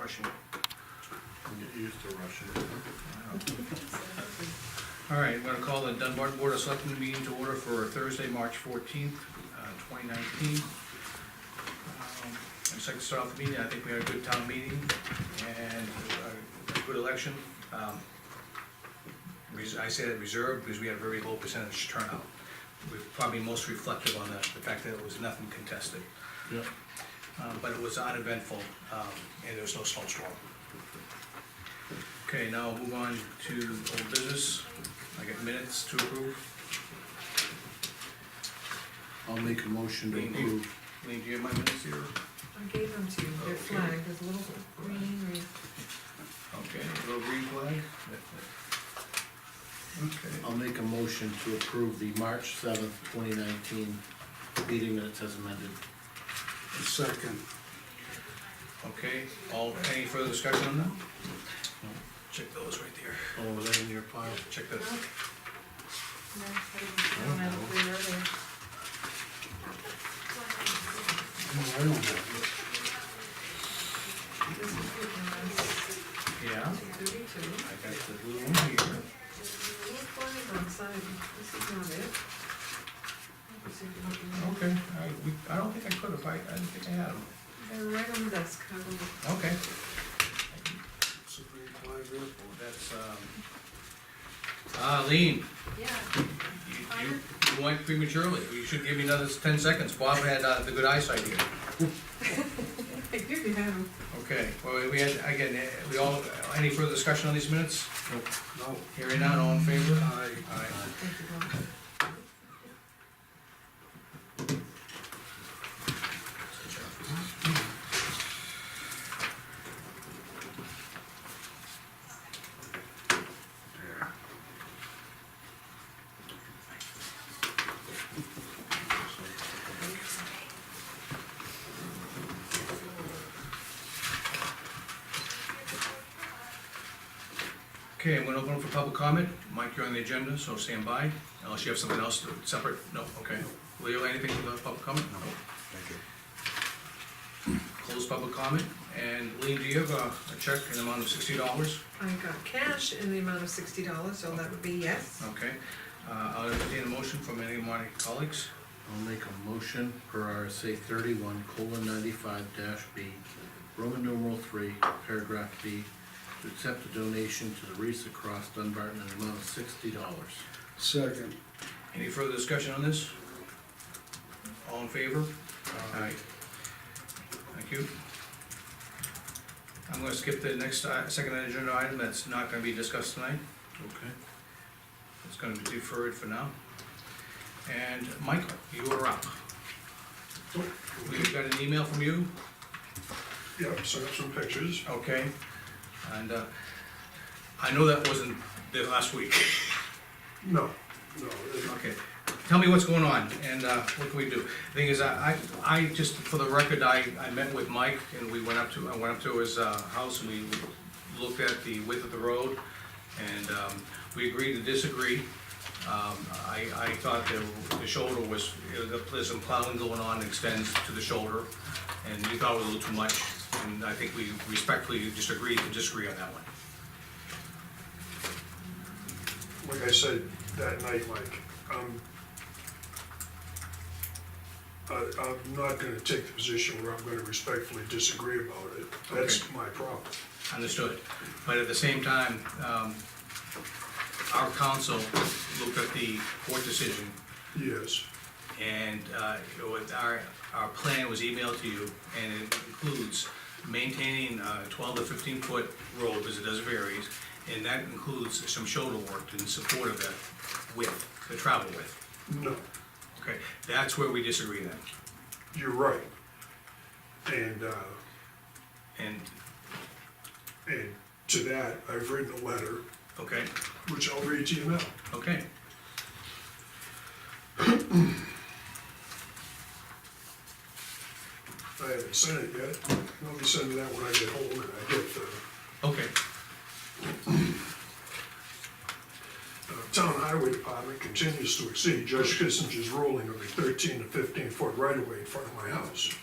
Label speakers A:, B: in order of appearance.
A: Russian.
B: Get used to Russian.
C: All right, we're gonna call the Dunbar Board of Selectmen meeting to order for Thursday, March fourteenth, uh, twenty nineteen. I'd just like to start off the meeting, I think we had a good town meeting and a- a good election. Um, res- I say that reserved because we had a very low percentage turnout. We're probably most reflective on the, the fact that it was nothing contested,
B: Yeah,
C: Uh, but it was uneventful, um, and there was no snowstorm. Okay, now we'll move on to old business. I got minutes to approve.
B: I'll make a motion to approve.
C: Lean, do you have my minutes here?
D: I gave them to you, they're
C: Okay.
D: flagged, there's a little green, green.
C: Okay, little green flag. Okay.
B: I'll make a motion to approve the March seventh, twenty nineteen meeting minutes as amended.
A: Second.
C: Okay, all, any further discussion on that? Check those right there.
B: Oh, was that in your pile?
C: Check that.
D: No, No, I didn't- I don't have a green earlier.
A: No, I don't have
D: This is good, and that's
C: Yeah,
D: thirty-two.
C: I got the blue one here.
D: There's a little flag on the side, this is not it. Let's see if you don't
C: Okay, I, we, I don't think I could have, I, I didn't think I had them.
D: remember. They're right on the desk, I will,
C: Okay.
A: it. Supreme Flag there.
C: That's, um, ah, Lean,
D: yeah,
C: you, you, you went prematurely. You should give me another ten seconds. Bob had, uh, the good eyesight here.
D: I do you have them.
C: Okay, well, we had, again, eh, we all, any further discussion on these minutes?
A: No,
C: Hearing none, all in favor?
A: I,
C: Aye.
D: Thank you, Bob.
C: Okay, I'm gonna open up for public comment. Mike, you're on the agenda, so stand by, unless you have something else to, separate, no, okay. Leo, anything for the public comment? No.
A: Thank you.
C: Close public comment, and Lean, do you have a, a check in the amount of sixty dollars?
D: I got cash in the amount of sixty dollars, so that would be yes.
C: Okay, uh, I'll entertain a motion from any of my colleagues.
B: I'll make a motion per RSA thirty-one colon ninety-five dash B, Roman numeral three, paragraph B, to accept a donation to the Reese across Dunbarton in the amount of sixty dollars.
A: Second.
C: Any further discussion on this? All in favor? Aye. Thank you. I'm gonna skip the next, uh, second agenda item that's not gonna be discussed tonight.
B: Okay.
C: It's gonna be deferred for now. And Michael, you are up. We got an email from you,
A: Yeah, set up some pictures.
C: okay? And, uh, I know that wasn't the last week.
A: No, no, it-
C: Okay, tell me what's going on and, uh, what can we do? Thing is, I, I, I just, for the record, I, I met with Mike and we went up to, I went up to his, uh, house and we looked at the width of the road and, um, we agreed to disagree. Um, I, I thought the, the shoulder was, there's some plowing going on, extends to the shoulder. And you thought it was a little too much, and I think we respectfully disagreed to disagree on that one.
A: like I said that night, Mike, um, I, I'm not gonna take the position where I'm gonna respectfully disagree about it. That's my problem.
C: Understood, but at the same time, um, our council looked at the court decision,
A: Yes,
C: and, uh, it was- our, our plan was emailed to you, and it includes maintaining, uh, twelve to fifteen foot road, because it does varies, and that includes some shoulder work in support of the width, the travel width,
A: no,
C: okay? That's where we disagree then,
A: you're right. And, uh,
C: and,
A: And to that, I've written a letter,
C: okay,
A: which I'll read to you now.
C: okay,
A: I haven't sent it yet. I'll be sending that when I get home and I get the
C: okay,
A: uh, Town Highway Department continues to exceed Judge Kissinger's ruling of a thirteen to fifteen foot right of way in front of my house.